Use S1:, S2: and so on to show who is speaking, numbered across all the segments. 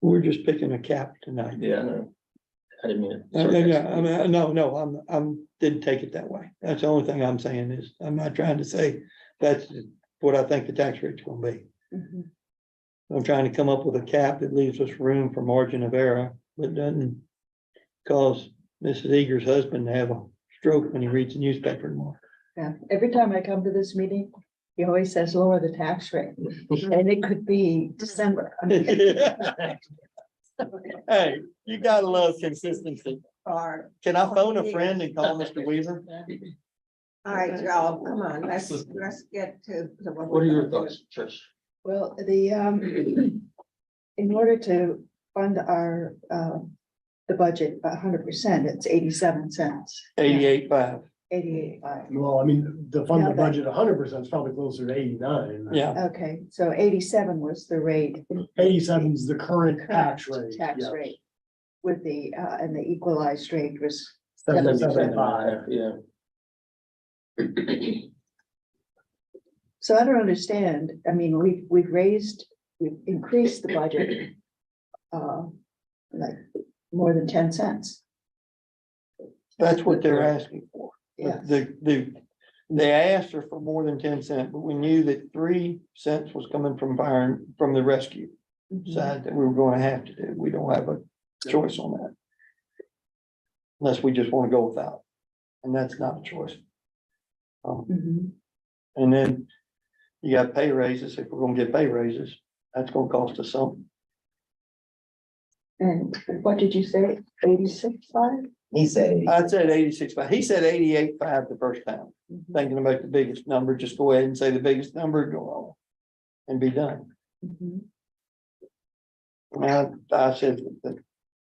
S1: We're just picking a cap tonight.
S2: Yeah, I know. I didn't mean
S1: Uh, Yeah, yeah, I
S2: it.
S1: mean, no, no, I'm, I'm, didn't take it that way. That's the only thing I'm saying is, I'm not trying to say that's what I think the tax rate's gonna be.
S3: Mhm.
S1: I'm trying to come up with a cap that leaves us room for margin of error, but doesn't cause Mrs. Eager's husband to have a stroke when he reads the newspaper tomorrow.
S3: Yeah, every time I come to this meeting, he always says lower the tax rate, and it could be December. I mean,
S1: Hey, you gotta love consistency.
S4: Or,
S1: Can I phone a friend and call Mr. Weaver?
S4: all right, y'all, come on, let's, let's get to. to
S2: What are
S4: we're
S2: your
S4: gonna do.
S2: thoughts, Trish?
S3: Well, the, um, in order to fund our, um, the budget a hundred percent, it's eighty-seven cents,
S1: Eighty-eight five,
S3: eighty-eight five.
S5: Well, I mean, the fund the
S3: Yeah, but-
S5: budget hundred percent is probably closer to eighty-nine.
S1: yeah.
S3: Okay, so eighty-seven was the rate.
S5: Eighty-seven is the current tax
S3: Correct,
S5: rate.
S3: Tax
S5: yeah.
S3: rate. With the, uh, and the equalized rate was,
S5: 77.5.
S2: Yeah.
S3: so I don't understand, I mean, we, we've raised, we've increased the budget. Uh, like, more than ten cents,
S1: That's what they're asking for.
S3: yeah.
S1: The, the, they asked her for more than ten cent, but we knew that three cents was coming from fire, and- from the rescue
S3: Mm-hmm.
S1: side that we were gonna have to do. We don't have a choice on that. Unless we just wanna go without, and that's not a choice. Um,
S3: Mhm.
S1: and then you got pay raises. If we're gonna get pay raises, that's gonna cost us something.
S3: And what did you say, eighty-six five?
S6: He said,
S1: I said eighty-six, but he said eighty-eight five the first time. Thinking about the biggest number, just go ahead and say the biggest number, go on. And be done. And I I said. that-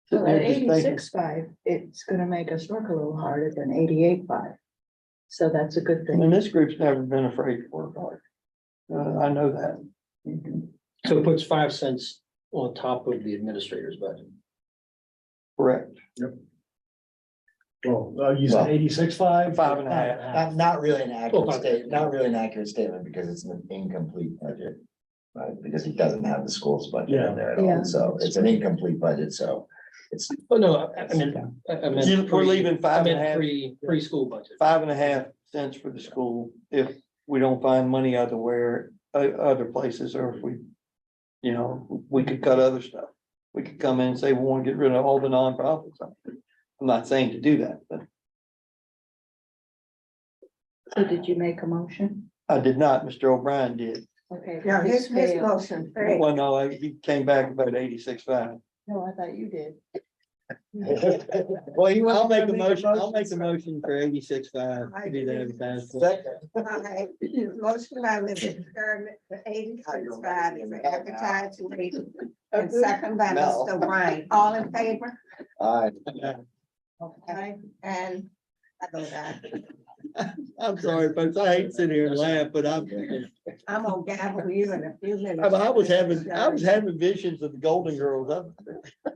S3: So
S1: that
S3: at
S1: they're just thinking-
S3: eighty-six five, it's gonna make us work a little harder than eighty-eight five. So that's a good thing.
S1: And this group's never been afraid to work hard. Uh, I know that.
S2: So it puts five cents on top of the administrator's budget.
S1: Correct.
S5: Well, uh, you
S6: Well,
S5: said eighty-six five?
S1: five and a half.
S6: not, not really an
S2: Well,
S6: accurate
S2: but-
S6: statement, not really an accurate statement because it's an incomplete budget. Right, because he doesn't have the school's budget
S5: Yeah.
S6: in there at
S3: Yeah.
S6: all, so it's an incomplete budget, so it's,
S2: Oh, no, I I mean, I I meant.
S1: You- We're
S2: pre-
S1: leaving
S2: I
S1: five and a
S2: meant
S1: half,
S2: pre, preschool budget.
S1: five and a half cents for the school if we don't find money other where, uh, other places, or if we. You know, we could cut other stuff. We could come in and say, we want to get rid of all the nonprofits. I'm not saying to do that, but
S3: So did you make a motion?
S1: I did not. Mr. O'Brien did.
S3: Okay.
S4: Yeah, his, his
S3: failed.
S4: motion, failed.
S1: Well, no, I- he came back about eighty-six five.
S3: No, I thought you did.
S1: Well, you. I'll make a
S5: wasn't gonna make a
S1: motion, I'll make a
S5: motion,
S1: motion for eighty-six five.
S4: I
S1: You did that
S4: agree.
S1: advertise.
S4: Okay, Motion by Mrs. Sherman, for eighty-six five is an advertised rate, and second by
S6: No.
S4: Mr. Ryan, all in favor?
S6: I,
S4: Okay, and I go back,
S1: I'm sorry, folks, I hate sitting here and laugh, but I'm,
S4: I'm gonna gavel you in a few
S1: I
S4: minutes.
S1: I was having, I was having visions of the Golden Girls. I-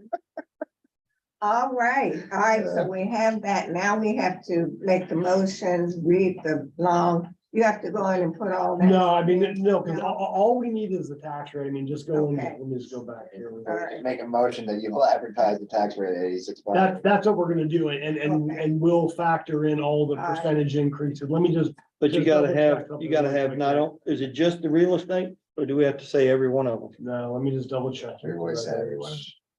S4: All right, all right, so we have that, now we have to make the motions, read the long, you have to go in and put all that.
S5: No, I mean, no, because all, all we need is the tax rate. I mean, just go, in-
S4: Okay.
S5: let me just go back here.
S4: Alright.
S6: make a motion that you will advertise the tax rate at eighty-six.
S5: That, that's what we're gonna do and, and,
S4: Okay.
S5: and we'll factor in all the
S4: Alright.
S5: percentage increases. Let me just,
S1: But you
S5: Just
S1: gotta
S5: double
S1: have,
S5: check up
S1: you gotta
S5: there.
S1: have not, on- is it just the real estate or do we have to say every one of them?
S5: no, let me just double check. here.
S6: We always had everyone.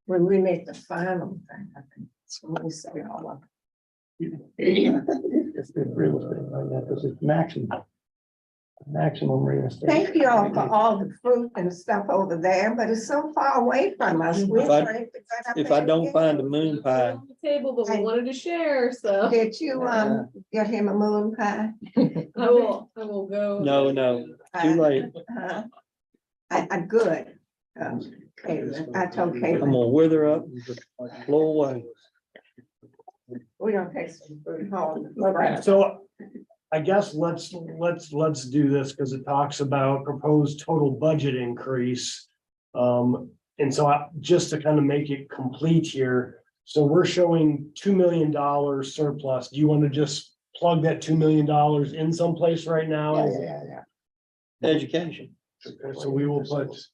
S4: When we make the final thing, I think, it's when we say all of
S1: It's the real estate like that, because it's maximum. Maximum real estate.
S4: Thank you all for all the fruit and stuff over there, but it's so far away from us. We're
S1: If I-
S4: trying to get up
S1: If I
S4: there.
S1: don't find a moon pie,
S7: on the Table, but
S4: Hi.
S7: we wanted to share, so
S4: Did you,
S1: Uh-huh.
S4: um, get him a moon pie?
S7: I will, I will go.
S1: no, no, too
S4: Uh,
S1: late.
S4: huh? I, I, good. Um, Caitlin, I told
S1: I'm
S4: Caitlin,
S1: gonna wither up, and just blow away.
S4: we don't take some food home. All right.
S5: So I guess let's, let's, let's do this because it talks about proposed total budget increase. Um, and so I, just to kind of make it complete here, so we're showing two million dollar surplus. Do you want to just plug that two million dollars in someplace right
S6: Yeah,
S5: now?
S6: yeah, yeah, yeah.
S1: Education.
S5: So we will put